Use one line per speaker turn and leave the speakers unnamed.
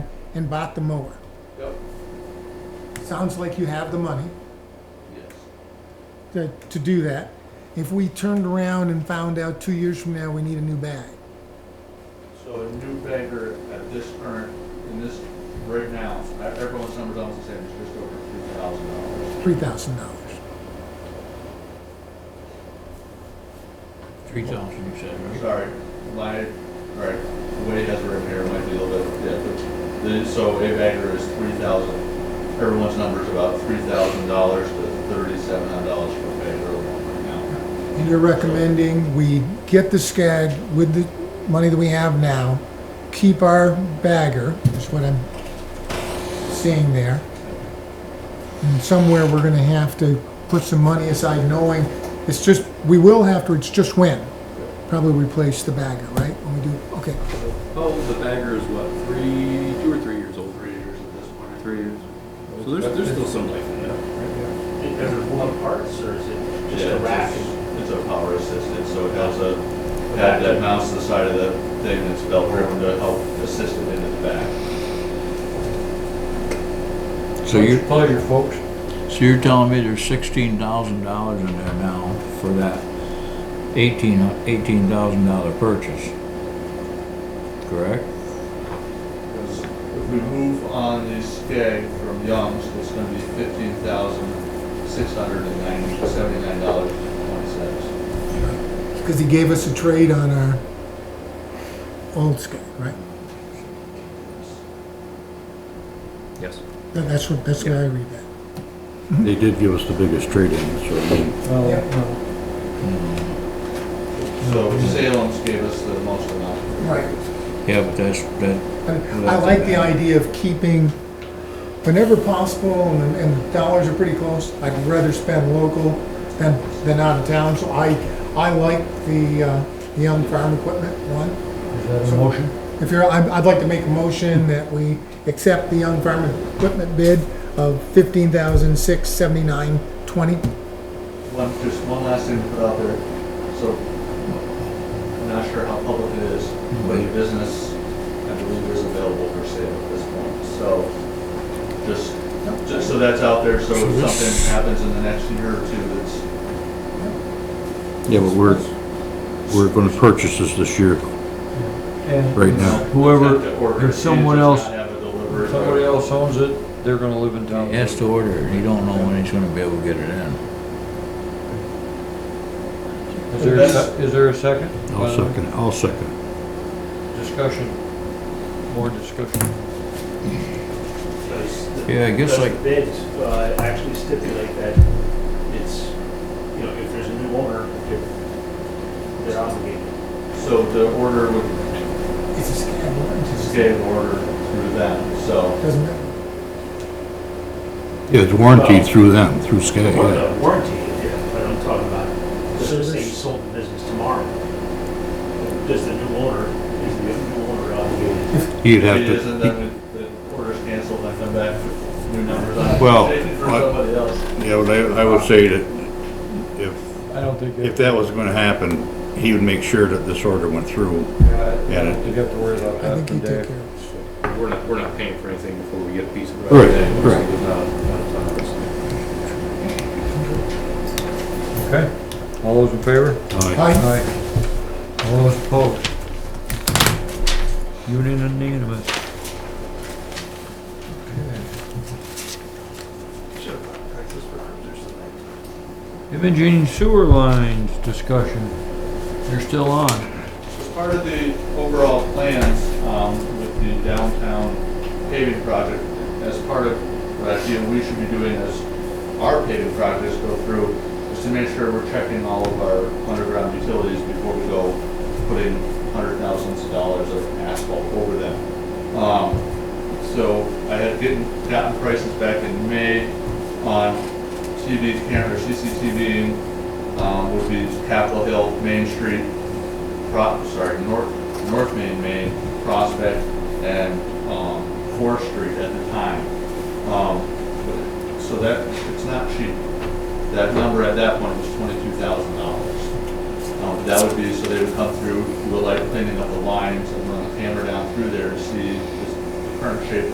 and bought the mower.
Yep,
Sounds like you have the money
yes.
to, to do that. If we turned around and found out two years from now we need a new bag,
So a new bagger at this current, in this, right now, uh, everyone's number's almost the same, it's just over three thousand dollars.
three thousand dollars.
Three thousand, you said, right?
Sorry, my, right, the way it has it written here might be a little bit, yeah, but, the- so a bagger is three thousand, everyone's number's about three thousand dollars to thirty-seven hundred dollars for a bagger alone right now.
And you're recommending we get the SCAD with the money that we have now, keep our bagger, is what I'm seeing there. And somewhere we're gonna have to put some money aside knowing, it's just, we will have to, it's just when. Probably replace the bagger, right? When we do, okay.
How old the bagger is what, three, two or three years old?
Three years at this point.
Three years. So there's, there's still some life in that.
Is it one parts or is it just
Yeah,
a
it's-
rack?
It's a power assisted, so it has a, had that mounts to the side of the thing that's belt driven to help assist it into the back.
So you,
Pleasure, folks.
so you're telling me there's sixteen thousand dollars in there now for that eighteen, eighteen thousand dollar purchase? Correct?
Because if we move on the skag from Young's, it's gonna be fifteen thousand, six hundred and ninety, seventy-nine dollars and twenty cents.
Because he gave us a trade on our old SCAD, right?
Yes.
That- That's what, that's what I read that.
They did give us the biggest trade-in, so I mean,
Well,
Yeah.
no,
So Salem's gave us the most amount.
Right.
Yeah, but that's, that,
I I like the idea of keeping, whenever possible, and, and the dollars are pretty close, I'd rather spend local than, than out of town, so I, I like the, uh, the young farm equipment one.
is that a motion?
If you're, I'd, I'd like to make a motion that we accept the young farm equipment bid of fifteen thousand six seventy-nine twenty.
One, just one last thing to put out there, so I'm not sure how public it is, but your business, I believe is available for sale at this point, so just, just so that's out there, so if something happens in the next year or two, that's
yeah, but we're, we're gonna purchase this this year,
And
right now.
whoever,
if someone else- somebody
somebody
else owns it, they're gonna live in town.
he has to order, it, and he don't know when he's gonna be able to get it in.
Is there, a se- is there a second? Uh,
I'll second, I'll second.
Discussion, more discussion.
Does the-
Yeah, I guess
does the
like-
Bids, uh, actually stipulate that it's, you know, if there's a new owner, they're- they're obligated.
So the order would
It's a scam, it's
stay in order through them,
a-
so.
doesn't matter.
Yeah, it's warranted through them, through SCAG,
Well,
yeah.
the warranty, yeah, but I'm talking about, so say you sold the business tomorrow, does the new owner, is the new owner obligated?
He'd
If
have
it isn't,
to,
then the the order's canceled, and I come back with new numbers on it.
Well,
Save it For
I-
somebody else.
yeah, but I, I would say that if,
I don't think. uh,
if that was gonna happen, he would make sure that this order went through.
Yeah, I don't think you have to worry about
I
that
think you
today.
take care of it.
We're not, we're not paying for anything before we get a piece of.
Right,
property.
right.
Without- without a ton of-
Okay, all those in favor?
Aye.
Aye.
Aye. All those opposed? Unanimous. Imaging sewer lines discussion, you're still on.
As part of the overall plans um, with the downtown paving project, as part of what I feel we should be doing as our paving projects go through, is to make sure we're checking all of our underground utilities before we go putting hundred thousands of dollars of asphalt over them. Um, So I had getting, gotten prices back in May on TV camera, CCTV, um, would be Capitol Hill, Main Street, Pro, sorry, North, North Main, Main, Prospect, and, um, Fourth Street at the time. Um, but- so that, it's not cheap. That number at that point was twenty-two thousand dollars. Um, that would be, so they would come through, do a light cleaning of the lines and run a hammer down through there to see the current shape